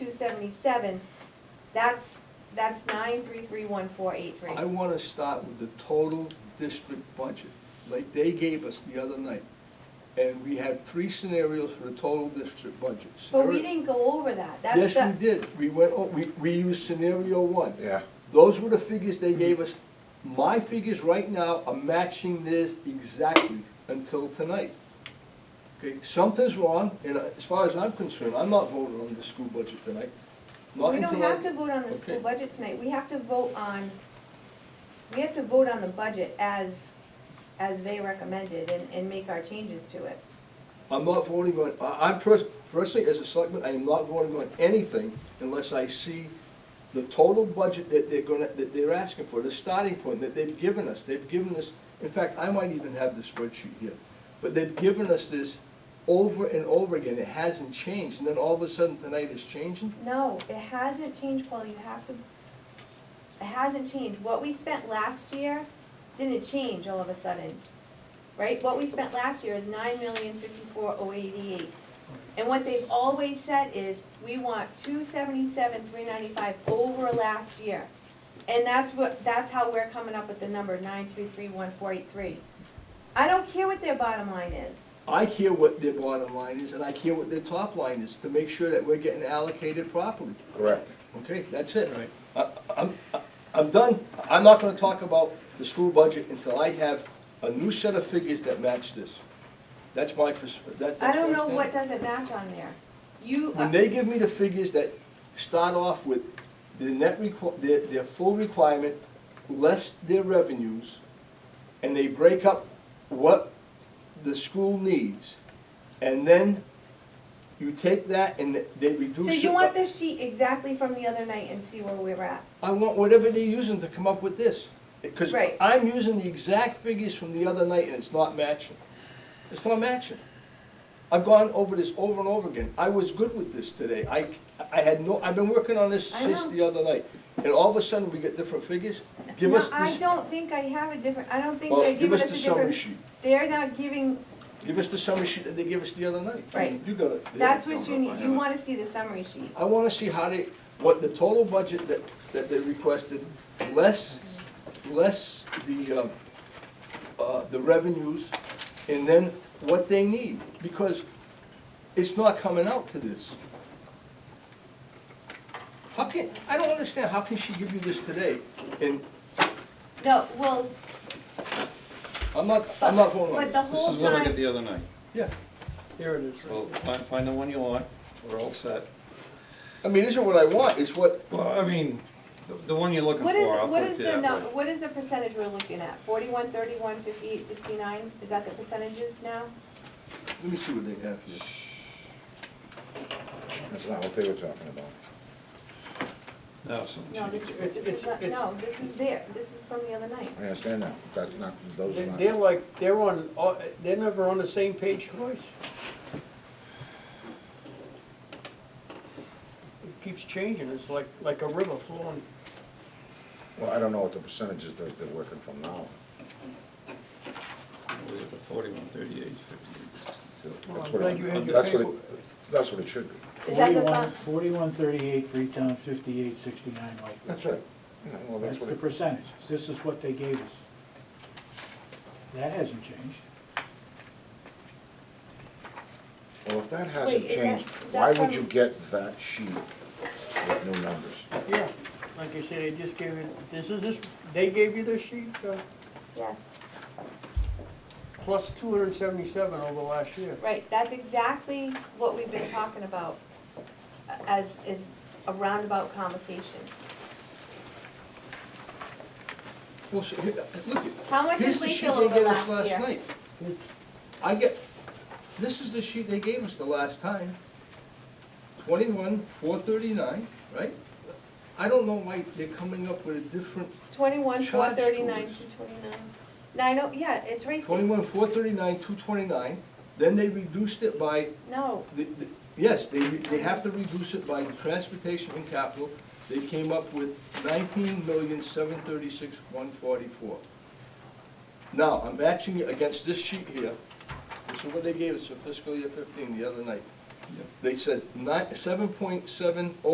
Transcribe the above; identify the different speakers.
Speaker 1: seventy-seven, that's, that's nine three three one four eight three.
Speaker 2: I wanna start with the total district budget, like they gave us the other night. And we had three scenarios for the total district budget.
Speaker 1: But we
Speaker 2: Scenario-
Speaker 1: didn't go over that, that's
Speaker 2: Yes,
Speaker 1: the,
Speaker 2: we did, we went, oh, we, we used scenario one.
Speaker 3: Yeah.
Speaker 2: Those were the figures they gave us. My figures right now are matching theirs exactly until tonight. Okay, something's wrong, and as far as I'm concerned, I'm not voting on the school budget tonight. Not
Speaker 1: we don't
Speaker 2: until I-
Speaker 1: have to vote on the school
Speaker 2: Okay.
Speaker 1: budget tonight, we have to vote on, we have to vote on the budget as, as they recommended and, and make our changes to it.
Speaker 2: I'm not voting on, I- I'm pers- personally, as a selectman, I am not voting on anything unless I see the total budget that they're gonna, that they're asking for, the starting point that they've given us. They've given us, in fact, I might even have the spreadsheet here, but they've given us this over and over again. It hasn't changed, and then all of a sudden tonight it's changing?
Speaker 1: No, it hasn't changed, Paul, you have to, it hasn't changed. What we spent last year didn't change all of a sudden, right? What we spent last year is nine million fifty-four oh eighty-eight. And what they've always said is, we want two seventy-seven three ninety-five over last year. And that's what, that's how we're coming up with the number nine three three one four eight three. I don't care what their bottom line is.
Speaker 2: I care what their bottom line is, and I care what their top line is, to make sure that we're getting allocated properly.
Speaker 3: Correct.
Speaker 2: Okay, that's it. I- I'm, I'm done. I'm not gonna talk about the school budget until I have a new set of figures that match this. That's my perspective, that,
Speaker 1: I
Speaker 2: that's
Speaker 1: don't
Speaker 2: where
Speaker 1: know
Speaker 2: I'm
Speaker 1: what
Speaker 2: standing.
Speaker 1: doesn't match on there. You.
Speaker 2: When they give me the figures that start off with the net requ, their, their full requirement, less their revenues, and they break up what the school needs, and then you take that and they reduce
Speaker 1: So
Speaker 2: it.
Speaker 1: you want
Speaker 2: by-
Speaker 1: the sheet exactly from the other night and see where we were at?
Speaker 2: I want whatever they're using to come up with this. Because
Speaker 1: Right.
Speaker 2: I'm using the exact figures from the other night and it's not matching. It's not matching. I've gone over this over and over again. I was good with this today. I, I had no, I've been working on this
Speaker 1: I
Speaker 2: since
Speaker 1: know.
Speaker 2: the other night. And all of a sudden, we get different figures? Give us
Speaker 1: No, I
Speaker 2: this,
Speaker 1: don't think I have a different, I don't think
Speaker 2: well,
Speaker 1: they're
Speaker 2: give
Speaker 1: giving
Speaker 2: us
Speaker 1: us
Speaker 2: the
Speaker 1: a
Speaker 2: summary
Speaker 1: different,
Speaker 2: sheet.
Speaker 1: they're not giving,
Speaker 2: Give us the summary sheet that they gave us the other night.
Speaker 1: Right.
Speaker 2: You got it.
Speaker 1: that's what you need, you wanna see the summary sheet.
Speaker 2: I wanna see how they, what the total budget that, that they requested, less, less the, uh, uh, the revenues, and then what they need, because it's not coming out to this. How can, I don't understand, how can she give you this today? And
Speaker 1: No, well,
Speaker 2: I'm not, I'm not going on
Speaker 1: but the
Speaker 2: it.
Speaker 3: This
Speaker 1: whole
Speaker 3: is what I got
Speaker 1: time,
Speaker 3: the other night.
Speaker 2: Yeah,
Speaker 4: Here it is.
Speaker 3: Well, find, find the one you want, we're all set.
Speaker 2: I mean, this is what I want, it's what,
Speaker 3: Well, I mean, the, the one you're looking
Speaker 1: what is,
Speaker 3: for, I'll
Speaker 1: what
Speaker 3: put it
Speaker 1: is the
Speaker 3: that
Speaker 1: number,
Speaker 3: way.
Speaker 1: what is the percentage we're looking at? Forty-one, thirty-one, fifty-eight, sixty-nine, is that the percentages now?
Speaker 2: let me see what they have here.
Speaker 5: That's not what they were talking about.
Speaker 3: No, some
Speaker 1: No, this
Speaker 3: change.
Speaker 1: is, this is
Speaker 4: it's-
Speaker 1: not,
Speaker 4: it's-
Speaker 1: no, this is there, this is from the other night.
Speaker 5: I understand that, that's not, those are
Speaker 4: They-
Speaker 5: not.
Speaker 4: They're like, they're on, all- they're never on the same page twice. It keeps changing, it's like, like a river flowing.
Speaker 5: Well, I don't know what the percentages that they're working from now.
Speaker 3: We have the forty-one, thirty-eight, fifty-eight.
Speaker 4: Well,
Speaker 5: That's
Speaker 4: I'm
Speaker 5: what
Speaker 4: glad
Speaker 5: it-
Speaker 4: you had your
Speaker 5: that's what it-
Speaker 4: paper.
Speaker 5: That's what it should be.
Speaker 1: Is that the,
Speaker 6: Forty-one,
Speaker 1: bu-
Speaker 6: forty-one thirty-eight, Freetown, fifty-eight sixty-nine, Whitehall.
Speaker 5: That's right. Yeah, Well, that's
Speaker 6: That's
Speaker 5: what
Speaker 6: the
Speaker 5: it,
Speaker 6: percentage. This is what they gave us. That hasn't changed.
Speaker 5: well, if that hasn't
Speaker 1: Wait, is that-
Speaker 5: changed,
Speaker 1: is that
Speaker 5: why would you
Speaker 1: from-
Speaker 5: get that sheet with new numbers?
Speaker 4: Yeah, like I said, they just gave you, this is this, they gave you this sheet, uh,
Speaker 1: yes,
Speaker 4: plus two hundred and seventy-seven over last year.
Speaker 1: right, that's exactly what we've been talking about uh, as, is a roundabout conversation.
Speaker 2: Well, so, here, look it.
Speaker 1: How much
Speaker 2: Here's
Speaker 1: is
Speaker 2: the sheet
Speaker 1: Lakeville
Speaker 2: they
Speaker 1: over
Speaker 2: gave us
Speaker 1: last
Speaker 2: last
Speaker 1: year?
Speaker 2: night. I get, this is the sheet they gave us the last time. Twenty-one, four thirty-nine, right? I don't know why they're coming up with a different,
Speaker 1: Twenty-one, four
Speaker 2: Charge
Speaker 1: thirty-nine,
Speaker 2: tools.
Speaker 1: two twenty-nine. Nine oh, yeah, it's right there.
Speaker 2: twenty-one, four thirty-nine, two twenty-nine, then they reduced it by,
Speaker 1: No,
Speaker 2: the- the- yes, they, re- they have to reduce it by the transportation and capital. They came up with nineteen million, seven thirty-six, one forty-four. Now, I'm matching it against this sheet here. This is what they gave us for fiscal year fifteen the other night. They said nine, seven point seven oh